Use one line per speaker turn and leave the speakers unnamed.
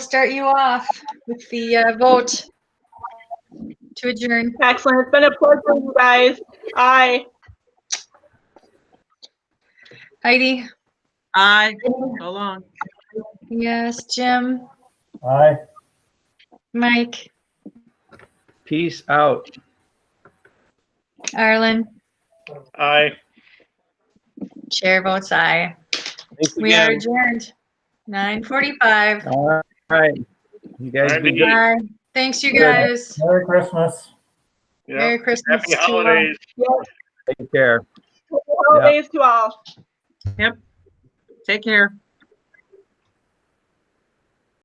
start you off with the uh, vote to adjourn.
Excellent. It's been a pleasure, you guys. Aye.
Heidi?
Aye, so long.
Yes. Jim?
Aye.
Mike?
Peace out.
Arlen?
Aye.
Chair votes aye.
Thanks
We are
again.
adjourned. 9:45.
All right. You guys
Alright,
be
be
good.
Bye. Thanks, you
Yeah.
guys.
Merry Christmas.
Merry Christmas.
Happy
to all.
holidays.
Take care.
Happy holidays to all.
Take care.